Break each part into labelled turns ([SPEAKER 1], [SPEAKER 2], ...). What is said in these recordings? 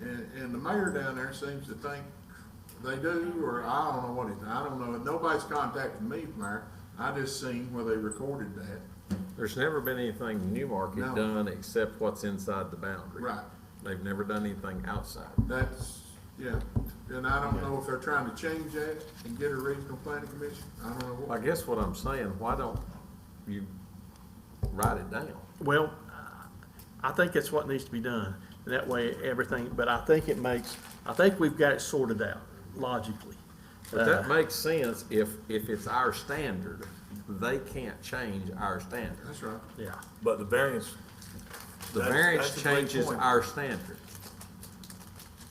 [SPEAKER 1] And, and the mayor down there seems to think they do, or I don't know what it, I don't know, nobody's contacted me from there. I just seen where they recorded that.
[SPEAKER 2] There's never been anything in
[SPEAKER 1] No.
[SPEAKER 2] Newmarket done except what's inside the boundary.
[SPEAKER 1] Right.
[SPEAKER 2] They've never done anything outside.
[SPEAKER 1] That's, yeah, and I don't know if they're trying to change that and get a regional planning commission, I don't know
[SPEAKER 2] I
[SPEAKER 1] what.
[SPEAKER 2] guess what I'm saying, why don't you write it down?
[SPEAKER 3] Well, I think that's what needs to be done. That way, everything, but I think it makes, I think we've got it sorted out logically.
[SPEAKER 2] But that
[SPEAKER 3] Uh,
[SPEAKER 2] makes sense if, if it's our standard, they can't change our standard.
[SPEAKER 1] That's right.
[SPEAKER 3] Yeah,
[SPEAKER 4] But the variance,
[SPEAKER 2] The
[SPEAKER 4] That's-
[SPEAKER 2] variance
[SPEAKER 4] that's a great
[SPEAKER 2] changes
[SPEAKER 4] point.
[SPEAKER 2] our standard.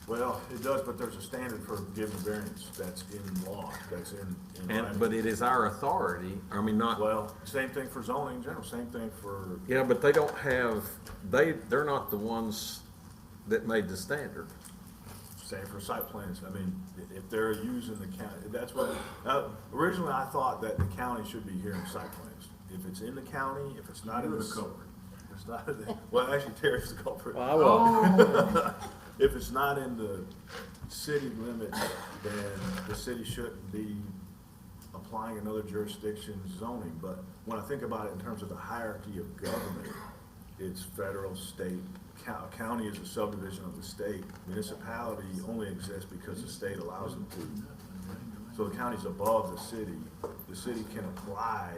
[SPEAKER 4] well, it does, but there's a standard for giving variance that's in law, that's in. in
[SPEAKER 2] And,
[SPEAKER 4] writing.
[SPEAKER 2] but it is our authority, I mean, not,
[SPEAKER 4] Well, same thing for zoning in general, same thing for,
[SPEAKER 2] yeah, but they don't have, they, they're not the ones that made the standard.
[SPEAKER 4] same for site plans. I mean, i- if they're using the county, that's what, uh, originally I thought that the county should be hearing site plans. If it's in the county, if it's not in
[SPEAKER 1] You're
[SPEAKER 4] the.
[SPEAKER 1] the culprit.
[SPEAKER 4] If it's not, in the- well, actually Terry's the culprit.
[SPEAKER 3] well, I will,
[SPEAKER 4] If it's not in the city limits, then the city shouldn't be applying another jurisdiction's zoning. But when I think about it in terms of the hierarchy of government, it's federal, state, county, county is a subdivision of the state. Municipality only exists because the state allows them to. So the county's above the city. The city can apply,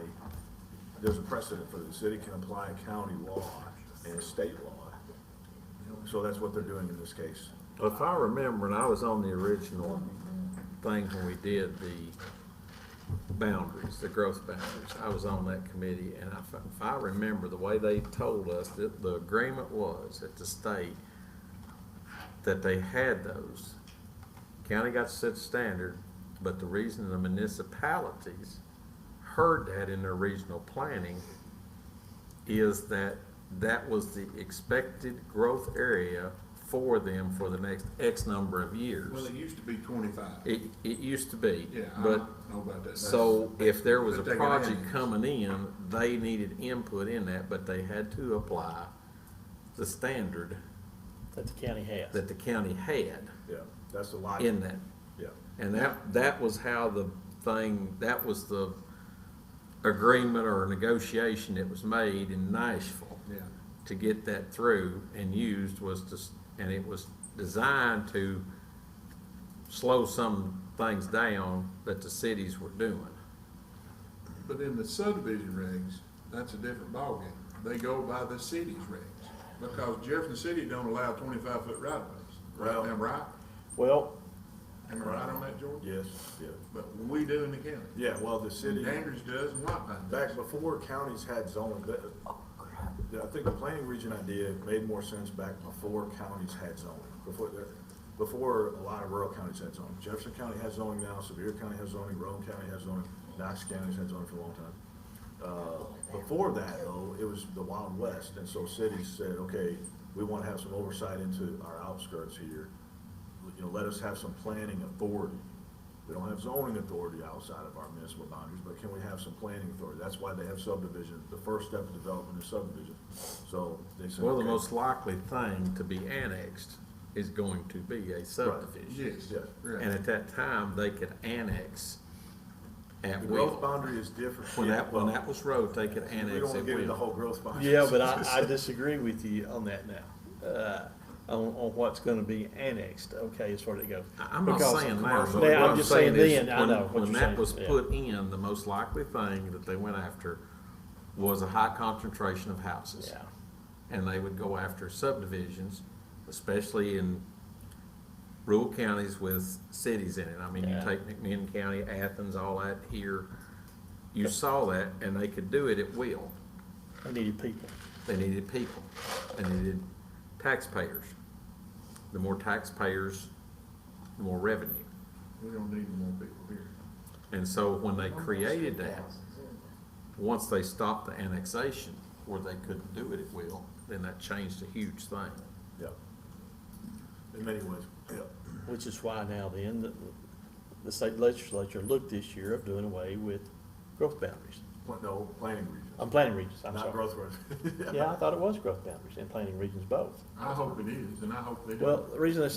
[SPEAKER 4] there's a precedent for it. The city can apply county law and state law. So that's what they're doing in this case.
[SPEAKER 2] If I remember, and I was on the original thing when we did the boundaries, the growth boundaries, I was on that committee, and I, if I remember, the way they told us that the agreement was at the state that they had those. County got set standard, but the reason the municipalities heard that in their regional planning is that that was the expected growth area for them for the next X number of
[SPEAKER 1] Well,
[SPEAKER 2] years.
[SPEAKER 1] it used to be twenty-five,
[SPEAKER 2] It, it used to be,
[SPEAKER 1] yeah, uh-huh. I
[SPEAKER 2] but,
[SPEAKER 1] don't know about that.
[SPEAKER 2] so if there was a
[SPEAKER 1] But they got
[SPEAKER 2] project
[SPEAKER 1] in.
[SPEAKER 2] coming in, they needed input in that, but they had to apply the standard
[SPEAKER 3] that the county has.
[SPEAKER 2] that the county had
[SPEAKER 4] Yeah, that's the logic.
[SPEAKER 2] in that.
[SPEAKER 4] Yeah,
[SPEAKER 2] And that, that was how the thing, that was the agreement or negotiation that was made in Nashville
[SPEAKER 1] Yeah,
[SPEAKER 2] to get that through and used was to, s- and it was designed to slow some things down that the cities were doing.
[SPEAKER 1] but in the subdivision regs, that's a different ballgame. They go by the city's regs, because Jefferson City don't allow twenty-five foot right of ways.
[SPEAKER 4] Well-
[SPEAKER 1] Right, am I right?
[SPEAKER 3] Well,
[SPEAKER 1] Am I right on that, George?
[SPEAKER 4] yes, yeah.
[SPEAKER 1] But we do in the county.
[SPEAKER 4] Yeah, well, the city,
[SPEAKER 1] Andrews does and Whitebine does.
[SPEAKER 4] back before counties had zoning, that, yeah, I think the planning region idea made more sense back before counties had zoning. Before, the- before a lot of rural counties had zoning. Jefferson County has zoning now, Sevier County has zoning, Rome County has zoning, Knox County's had zoning for a long time. Uh, before that though, it was the Wild West, and so cities said, okay, we wanna have some oversight into our outskirts here. you know, let us have some planning authority. We don't have zoning authority outside of our municipal boundaries, but can we have some planning authority? That's why they have subdivision, the first step of development is subdivision, so they said.
[SPEAKER 2] Well, the
[SPEAKER 4] okay,
[SPEAKER 2] most likely thing to be annexed is going to be a subdivision.
[SPEAKER 1] Yes.
[SPEAKER 4] Yeah.
[SPEAKER 1] right.
[SPEAKER 2] And at that time, they could annex at
[SPEAKER 4] The growth
[SPEAKER 2] will.
[SPEAKER 4] boundary is different.
[SPEAKER 2] When that, when
[SPEAKER 4] Yeah,
[SPEAKER 2] that was road, they could
[SPEAKER 4] well, We
[SPEAKER 2] annex
[SPEAKER 4] don't wanna
[SPEAKER 2] at
[SPEAKER 4] get into the
[SPEAKER 2] will.
[SPEAKER 4] whole growth boundary.
[SPEAKER 3] yeah, but I, I disagree with you on that now, uh, on, on what's gonna be annexed, okay, as far as it goes.
[SPEAKER 2] I- I'm not
[SPEAKER 3] Because-
[SPEAKER 2] saying now, but what
[SPEAKER 3] Now,
[SPEAKER 2] I'm
[SPEAKER 3] just
[SPEAKER 2] saying is,
[SPEAKER 3] then, I know
[SPEAKER 2] when,
[SPEAKER 3] what
[SPEAKER 2] when
[SPEAKER 3] you're
[SPEAKER 2] that
[SPEAKER 3] saying,
[SPEAKER 2] was
[SPEAKER 3] yeah.
[SPEAKER 2] put in, the most likely thing that they went after was a high concentration of houses.
[SPEAKER 3] Yeah.
[SPEAKER 2] And they would go after subdivisions, especially in rural counties with cities in it. I mean, you
[SPEAKER 3] Yeah.
[SPEAKER 2] take McMinn County, Athens, all that here, you saw that, and they could do it at will.
[SPEAKER 3] I needed people.
[SPEAKER 2] They needed people. They needed taxpayers. The more taxpayers, the more revenue.
[SPEAKER 1] We don't need more people here.
[SPEAKER 2] And so when they created that, once they stopped the annexation, where they couldn't do it at will, then that changed a huge thing.
[SPEAKER 4] Yeah. In many ways, yeah.
[SPEAKER 3] Which is why now then, the, the state legislature looked this year of doing away with growth boundaries.
[SPEAKER 4] Pla- No, planning region,
[SPEAKER 3] I'm planning regions, I'm
[SPEAKER 4] not
[SPEAKER 3] sorry.
[SPEAKER 4] growth region.
[SPEAKER 3] Yeah, I thought it was growth boundaries and planning regions both.
[SPEAKER 1] I hope it is, and I hope they do.
[SPEAKER 3] Well, the reason I say